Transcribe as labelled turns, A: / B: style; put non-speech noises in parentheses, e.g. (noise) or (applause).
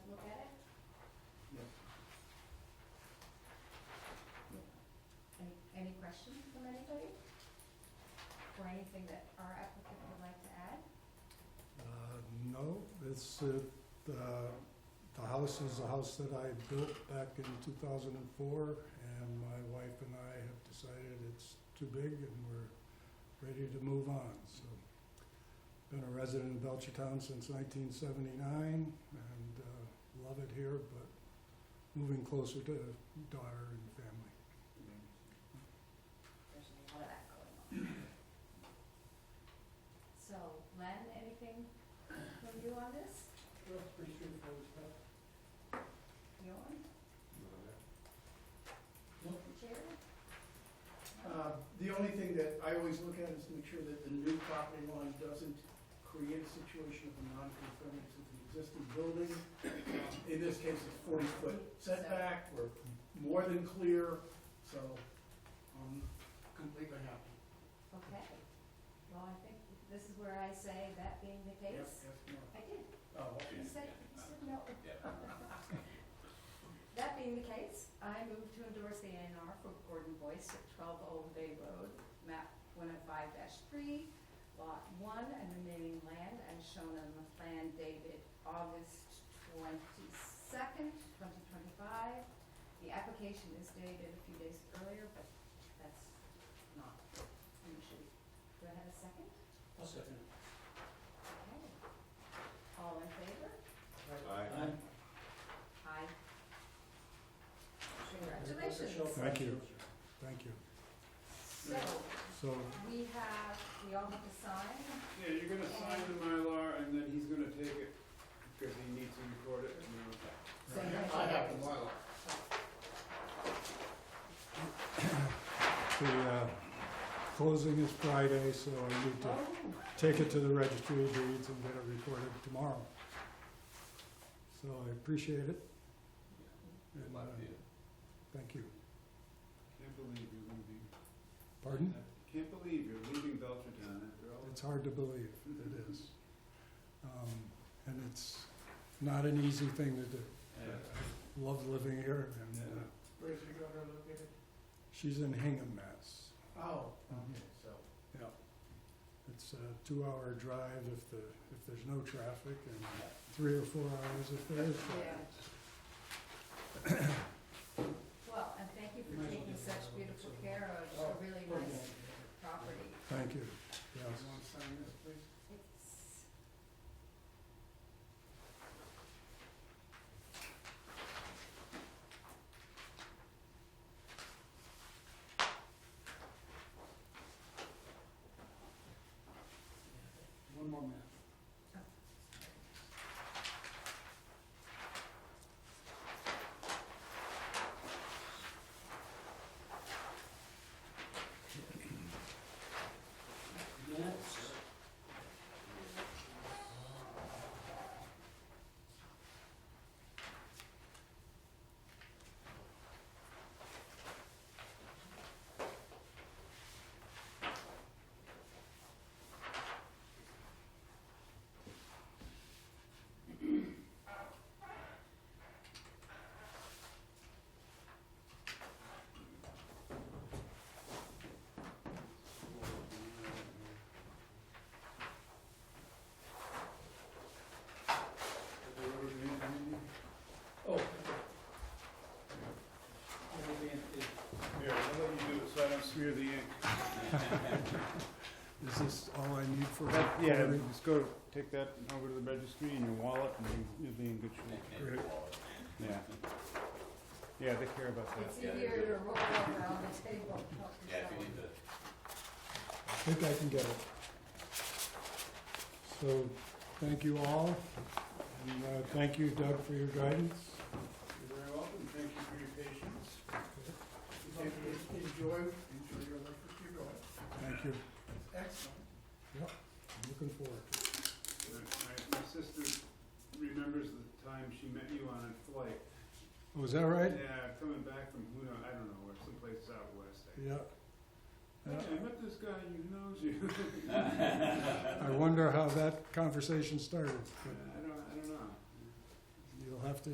A: Uh, It's, uh, the, the house is a house that I built back in two thousand and four, and my wife and I have decided it's too big and we're ready to move on, so. Been a resident of Belchertown since nineteen seventy-nine, and, uh, love it here, but moving closer to daughter and family.
B: There's a lot of that going on. So, Len, anything from you on this?
C: Well, it's pretty straightforward stuff.
B: Bjorn, Jared?
C: Uh, The only thing that I always look at is to make sure that the new property line doesn't create a situation of a non-conformance with the existing building. Uh, In this case, it's forty foot setback, we're more than clear, so um, I'm completely happy.
B: Okay. Well, I think this is where I say, that being the
C: Yes,
B: case,
C: yes, no.
B: I did,
C: Oh, okay.
B: you said, you said no. That being the case, I move to endorse the A and R for Gordon Boyce at twelve Old Bay Road, map one oh five three, lot one, and remaining land as shown on the plan dated August twenty-second, twenty twenty-five. The application is dated a few days earlier, but that's not an issue. Do I have a second?
C: I'll second it.
B: Okay. All in favor?
C: Aye.
B: Aye. Congratulations.
A: Thank you. Thank you.
B: So,
A: So,
B: we have, we all have to sign,
D: Yeah, you're gonna sign the Mylar and then he's gonna take it because he needs to record it and then we'll pass.
B: so you have to.
C: I have the Mylar.
A: the, uh, closing is Friday, so I need to
B: Oh,
A: take it to the registry of deeds and get it recorded tomorrow. So I appreciate it. And, uh, Thank you.
D: Can't believe you're leaving.
A: Pardon?
D: Can't believe you're leaving Belchertown after all
A: It's hard to believe, it is. Um, And it's not an easy thing to do.
D: Yeah.
A: Love living here, and uh,
D: Yeah.
C: Where's your daughter located?
A: she's in Hingham, Mass.
C: Oh, okay, so.
A: Yeah. It's a two-hour drive if the, if there's no traffic, and three or four hours if there is
B: Yeah.
A: traffic.
B: Well, and thank you for taking such beautiful care of
C: Oh,
B: a really nice property.
A: Thank you. Yes.
C: You want to sign this, please?
B: It's,
C: One more minute. Minutes. Oh. okay. Everything is-
D: Here, I'll let you do it so I don't smear the ink.
A: Is this all I need for
D: That- Yeah,
A: recording?
D: just go, take that over to the registry in your wallet and you- you'll be in good shape.
A: Great.
D: Yeah. Yeah, they care about that.
B: it's easier to roll over on the table.
E: Yeah, if you need to,
A: I think I can get it. So, thank you all, and uh, thank you, Doug, for your guidance.
D: You're very welcome. Thank you for your patience.
C: Enjoy, enjoy your life if you're going.
A: Thank you.
C: Excellent.
A: I'm looking forward to it.
D: My- My my sister remembers the time she met you on a flight.
A: Oh, is that right?
D: Yeah, coming back from who know, I don't know where, someplace out west. I-
A: Yeah.
D: Hey, I met this guy who knows you. (laughs)
A: I wonder how that conversation started,
D: I
A: but
D: don't, I don't know.
A: you'll have to